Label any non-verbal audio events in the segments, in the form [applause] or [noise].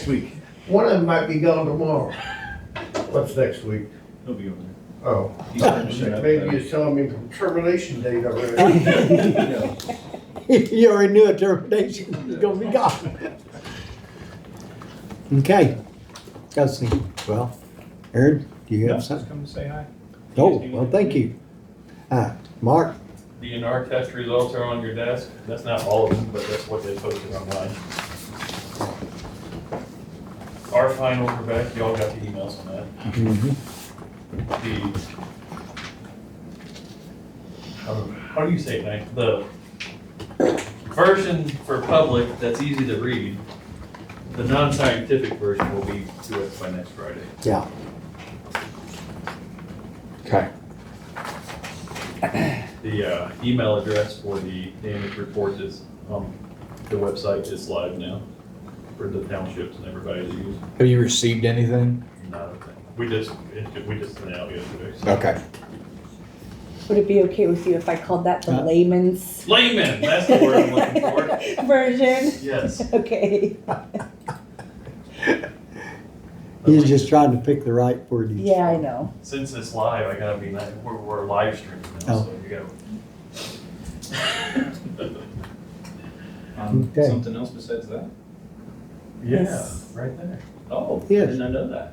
Next week, One of them might be gone tomorrow. What's next week? he'll be over Oh, there. maybe you're telling me from termination date already. Yeah. You already knew a termination was gonna be gone. Okay, got well, Aaron, do you No, have just something? come to say hi. Oh, Yes, you well, do. thank you. Uh, Mark, DNR test results are on your desk. That's not all of them, but that's what they posted online. Our final, Rebecca, y'all got the emails on that. The, um, how do you say it, Nick? The version for public that's easy to read, the non-scientific version will be to us by next Friday. yeah. Okay. The uh, email address for the damage report is, um, the website is live now for the townships and everybody to use. Have you received anything? Not a thing. We just, it- we just sent it out yesterday. so. Okay. Would it be okay with you if I called that the Uh. layman's Layman, that's the word I'm looking for. [laughs] version? Yes. Okay, He's just trying to pick the right word. yeah, I know. Since it's live, I gotta be, nice. we're, we're live streaming Oh. now, so you gotta. Um, Okay. Something else besides that? Yeah, Yes. right there. Oh, Yes. didn't I know that?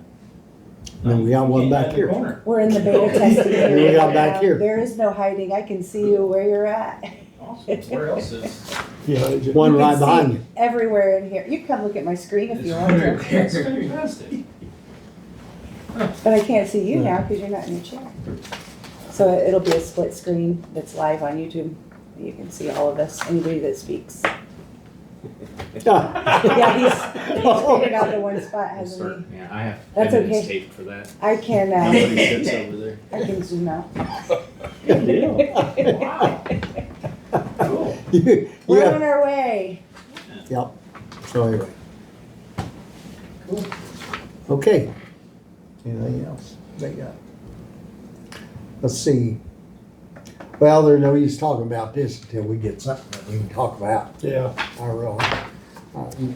Then we got one Hidden back in the here. corner. We're in the [laughs] beta testing. Here we area are back now. here. There is no hiding. I can see you where you're at. Awesome. Where else is? One You can right see behind you. Everywhere in here. You can come look at my screen [laughs] if you want to, That's [laughs] fantastic. but I can't see you now because you're not in your chair. So it- it'll be a split screen that's live on YouTube. You can see all of us, anybody [laughs] that speaks. [laughs] Yeah, he's, he's Oh. figured out the one spot, hasn't he? Yeah, I have That's evidence okay. taped for that. I can, uh, Nobody sits over there. I can zoom out. Good deal. Wow. Cool. [laughs] You- We're Yeah, on our way. yep, so anyway. Okay. Anything else they got? Let's see. Well, there's no use talking about this until we get something that we can talk about. Yeah. I really, I-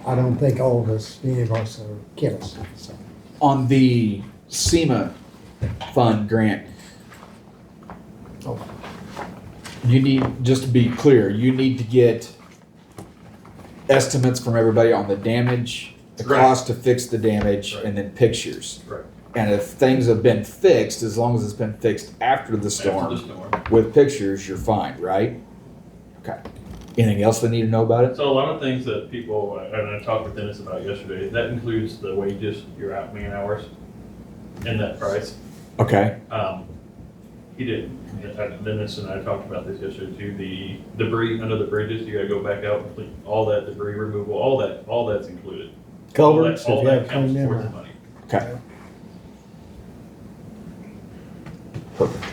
I don't think all of us, any of us are chemists, so. On the SEMA fund grant, you need, just to be clear, you need to get estimates from everybody on the damage, the Right. cost to fix the damage, Right. and then pictures. Right. And if things have been fixed, as long as it's been fixed after the After the storm storm. with pictures, you're fine, right? Okay. Anything else they need to know about it? So a lot of things that people, and I talked with Dennis about yesterday, that includes the wages, your out man hours, and that price. Okay. Um, he did, not Dennis and I talked about this yesterday too, the debris under the bridges, you gotta go back out, and clean all that debris removal, all that, all that's included. All that- Culverts, if all you that have counts cleaned them towards the out. money. Okay. Perfect.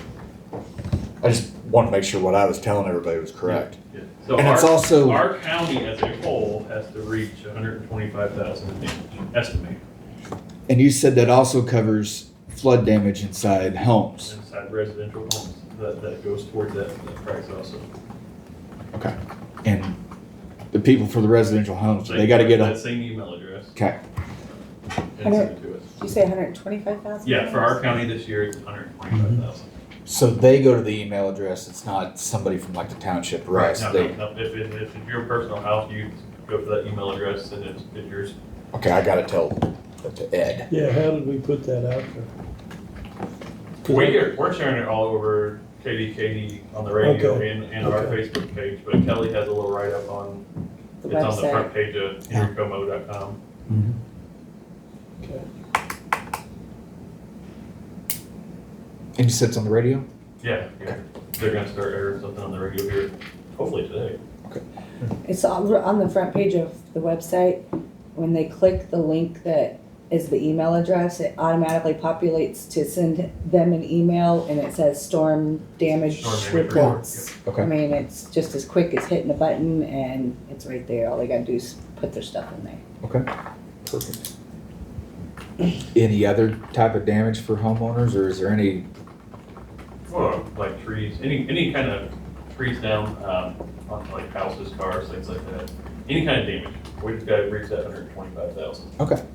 I just wanted to make sure what I was telling everybody was correct. Yeah. So And it's our- also- Our county as a whole has to reach hundred and twenty-five thousand in damage, estimate, And you said that also covers flood damage inside homes. inside residential homes, that, that goes toward that, that price also. Okay. And the people for the residential homes, they gotta get That a, same email address okay, and send it to us. Did you say hundred and twenty-five thousand? Yeah, for our county this year, it's hundred and twenty-five thousand. so they go to the email address, it's not somebody from like the township or us, No, they, no, no, if, if, if it's your personal house, you go for that email address and it's, it's yours. okay, I gotta tell that to Ed. Yeah, how did we put that out there? We're, we're sharing it all over KDKD on the radio Okay. and, and our Facebook page, but Kelly has a little write-up on, The it's on the website. front page of Yeah. henrycomo.com. Mm-hmm. And you said it's on the radio? Yeah, yeah, they're gonna start airing something on the radio here, hopefully today. It's on, on the front page of the website. When they click the link that is the email address, it automatically populates to send them an email and it says storm damage Storm damage report, reports. I Okay, mean, it's just as quick as hitting a button and it's right there. All they gotta do is put their stuff in there. perfect. Any other type of damage for homeowners, or is there any Well, like trees, any, any kind of trees down, um, on like houses, cars, things like that, any kind of damage. We just gotta reach that hundred and twenty-five thousand.